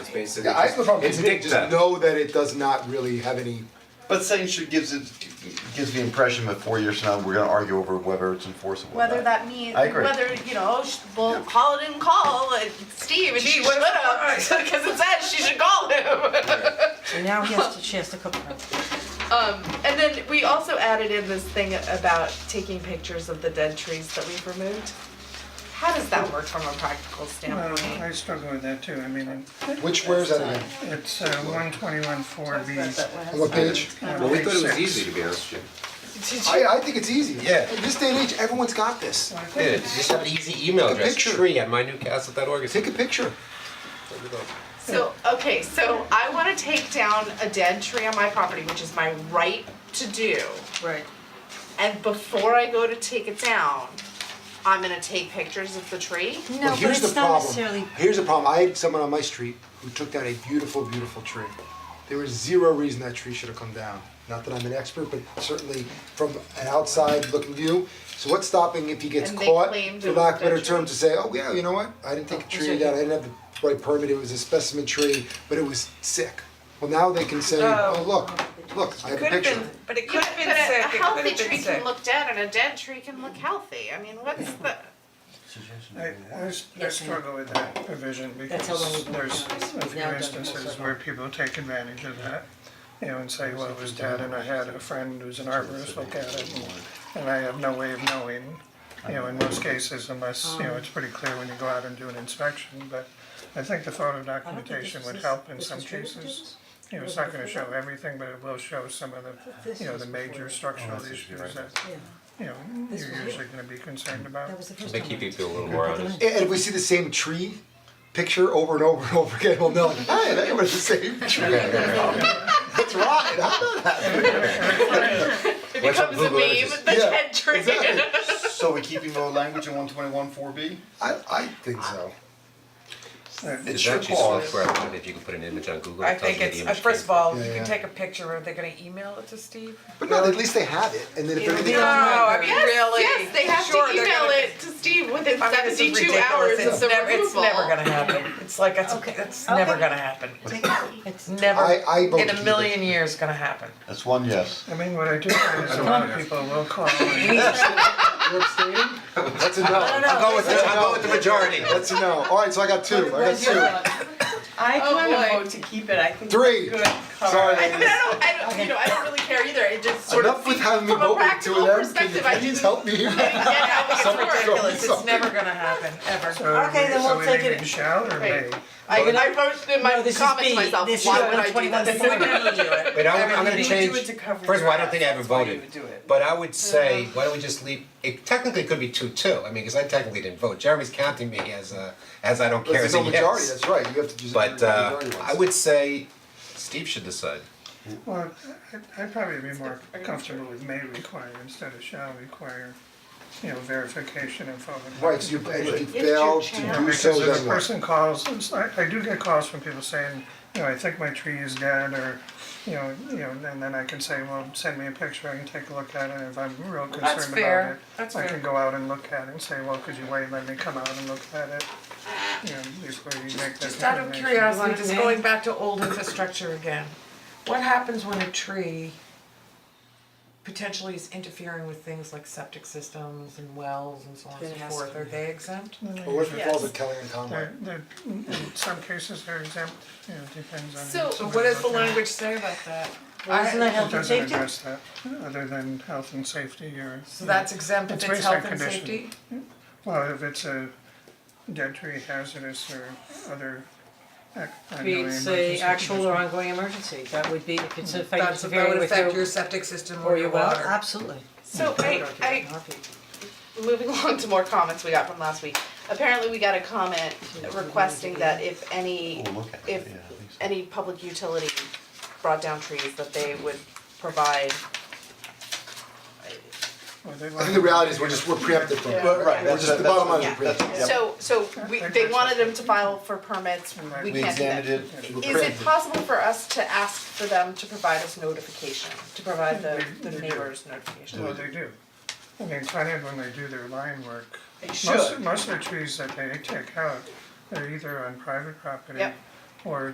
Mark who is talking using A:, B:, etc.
A: It's basically
B: Yeah, I have no problem
A: it's
B: with it,
A: dicta.
B: just know that it does not really have any,
C: But saying should gives it, gives the impression that four years from now, we're gonna argue over whether it's enforceable or not.
D: Whether that means,
C: I agree.
D: whether, you know, sh- well, call it and call, and Steve, and she should have, because it says she should call him.
E: And now he has to, she has to cook for him.
D: Um, and then we also added in this thing about taking pictures of the dead trees that we've removed. How does that work from a practical
F: Well,
D: standpoint?
F: Oh, I struggle with that too, I mean,
B: which, where's that again?
F: it's uh, one twenty-one four B.
B: On what page?
A: Well, we thought it was easy to be honest with you.
D: Did you-
B: I, I think it's easy.
C: Yeah.
B: In this day and age, everyone's got this.
A: Yeah, just have an easy email
B: Take a
A: address,
B: picture.
A: tree at mynewcastle.org.
B: Take a picture.
D: So, okay, so I wanna take down a dead tree on my property, which is my right to do.
E: Right.
D: And before I go to take it down, I'm gonna take pictures of the tree.
B: Well,
E: No, but
B: here's the
E: it's not
B: problem.
E: necessarily,
B: Here's the problem, I had someone on my street who took down a beautiful, beautiful tree. There was zero reason that tree should have come down. Not that I'm an expert, but certainly from an outside looking view. So what's stopping if he gets
D: And they
B: caught,
D: claimed
B: for
D: it
B: lack of
D: was
B: a better
D: dead
B: term,
D: tree.
B: to say, oh yeah, you know what? I didn't take the tree
E: sorry.
B: down, I didn't have the right permit, it was a specimen tree, but it was sick. Well, now they can say,
G: Oh.
B: oh, look, look, I have a
G: Could have
B: picture.
G: been, but it could
D: Yeah,
G: have been
D: but a-
G: sick, it
D: A
G: could
D: healthy
G: have been
D: tree can
G: sick.
D: look dead and a dead tree can look healthy. I mean, what's the?
F: I, I s- I
E: Yes, ma'am.
F: struggle with that provision
E: That's how long
F: because
E: we've
F: there's
E: worked on this.
F: a
E: We've
F: few
E: now done
F: instances
E: most of
F: where
E: it.
F: people take advantage of that. You know, and say, well, it was dead and I had a friend who's an arborist look at it and, and I have no way of knowing. You know, in most cases, unless, you know, it's pretty clear when you go out and do an inspection, but I think the photo
E: I don't think
F: documentation
E: this
F: would
E: is-
F: help in
E: this
F: some
E: was true, was
F: cases.
E: this?
F: You know, it's not gonna show everything, but it will show some of the,
E: this
F: you know,
E: was
F: the major
E: before.
F: structural issues that,
E: Yeah,
F: you know,
E: This was
F: you're
E: here.
F: usually gonna be concerned about.
E: that was the first
A: They
E: time.
A: keep
E: I-
A: people a little more
E: I
A: honest.
E: didn't-
B: And if we see the same tree picture over and over and over again, we'll know, hey, that was the same tree. That's right, I know that.
D: It
A: What's up,
D: becomes a
A: Google
D: meme,
A: Images?
D: the
B: Yeah,
D: dead tree.
B: exactly.
C: So we keeping the language in one twenty-one four B?
B: I, I think so.
F: That-
C: It's
A: There's
C: your
A: actually
C: call.
A: software I wonder if you can put an image on Google.
G: I
A: it tells
G: think
A: you where
G: it's,
A: the
G: uh,
A: image
G: first of
A: came
G: all,
B: Yeah,
G: you
B: yeah.
G: can take a picture, are they gonna email it to Steve?
B: But no, at least they have it, and then if everything
G: No,
B: else,
G: I mean,
D: Yes,
G: really?
D: yes, they have
G: Sure,
D: to
G: they're
D: email
G: gonna-
D: it to Steve within
G: I mean, this is
D: seventy-two
G: ridiculous.
D: hours.
G: It's
D: the
G: never, it's
D: removal.
G: never gonna happen, it's like, it's,
E: Okay.
G: it's never
E: Okay.
G: gonna happen,
E: It's
G: It's never,
B: I- I vote
G: in
B: to keep
G: a
B: it.
G: million years gonna happen.
C: That's one yes.
F: I mean, what I do find is a lot of people will call and
B: you're abstaining, that's a no.
E: no,
A: I'll go with the, I'll go with the majority.
B: That's a no. All right, so I got two, I got two,
H: I
D: Oh, boy.
H: can vote to keep it, I think
B: three.
H: it's a good cover.
B: Sorry,
D: I mean, I don't, I don't, you know, I don't really care either. It just sort of
B: Enough with having me
D: from a
B: vote with two of
D: practical
B: them, can you
D: perspective, I
B: please
D: didn't-
B: help me?
D: get how it's
B: Someone
D: worked.
B: go.
G: Ridiculous, it's never gonna happen, ever.
F: so are we,
E: Okay, then
F: so
E: we'll
F: we
E: take
F: leaving
E: it.
F: shall or may?
D: Right. I, I wrote in my
E: No, this is
D: comments
E: B.
D: myself,
E: This is
D: why would I do
E: 121.
D: that?
G: That's the way we do it.
A: But I'm, I'm gonna
G: Everything.
A: change,
H: do it to cover
A: first of all, I don't
H: your
A: think I
H: ass.
A: haven't
H: That's why
A: voted,
H: you would do it.
A: but I would say, why don't we just leave, it technically could be two two, I mean, cause I technically didn't vote, Jeremy's counting me as a, as I don't
B: But
A: care as
B: There's
A: a
B: no majority,
A: yes.
B: that's right, you have to just.
A: But
B: you're the
A: uh,
B: majority ones.
A: I would say Steve should decide.
F: Well, I- I'd probably be more comfortable with may require instead of shall require, you know, verification and photo.
B: Right, so you, and if you
D: your
B: fail to
D: channel.
B: do so,
F: Because if a
B: then what?
F: person calls, it's- I, I do get calls from people saying, you know, I think my tree is dead or, you know, you know, and then I can say, well, send me a picture, I can take a look at it, if I'm real
G: That's
F: concerned about
G: fair.
F: it.
G: That's
F: I
G: fair.
F: can go out and look at it and say, well, could you wait, let me come out and look at it, you know, before you make that determination.
G: Just out of curiosity, just going back to old infrastructure again, what happens when a tree potentially is interfering with things like septic systems and wells and so on and
E: Then it
G: so
E: has
G: forth,
E: to
G: are they exempt?
B: Well, what if it falls at Kelly and Conway?
F: They're, they're, in some cases, they're exempt, you know, depends on.
D: So,
G: So what does the language say about that?
E: Isn't that
F: It
E: health and
F: doesn't
E: safety?
F: address that, other than health and safety or.
G: So that's exempt if
F: It's
G: it's
F: based on
G: health and
F: condition.
G: safety?
F: Well, if it's a dead tree hazardous or other, ac- I know
E: Creates a
F: emergency
E: uh, actual or
F: condition.
E: ongoing emergency, that would be, if it's affecting,
G: That's, that
E: interfering
G: would
E: with
G: affect
E: your-
G: your septic system
E: or
G: or
E: your
G: your
E: well,
G: water.
E: absolutely.
D: So I, I moving along to more comments we got from last week. Apparently, we got a comment requesting that if any,
C: We'll Oh, look at it,
D: if
C: yeah, I think so.
D: any public utility brought down trees, that they would provide.
F: Well, they
B: I
F: want
B: think the reality is we're just, we're preempted from it.
C: Right,
B: We're
C: that's-
B: just, the
C: that's-
B: bottom line is
D: yeah.
B: we're preempted.
D: So, so we, they wanted them to file for permits, we
C: We
D: can't do that.
C: examined it.
B: We're
D: Is it
B: preempted.
D: possible for us to ask for them to provide us notification, to provide the, the neighbors notification?
F: Well, they do. I mean, it's funny when they do their line work.
D: They
F: Most, most of the trees that they take out, they're either on private property
D: Yep.
F: or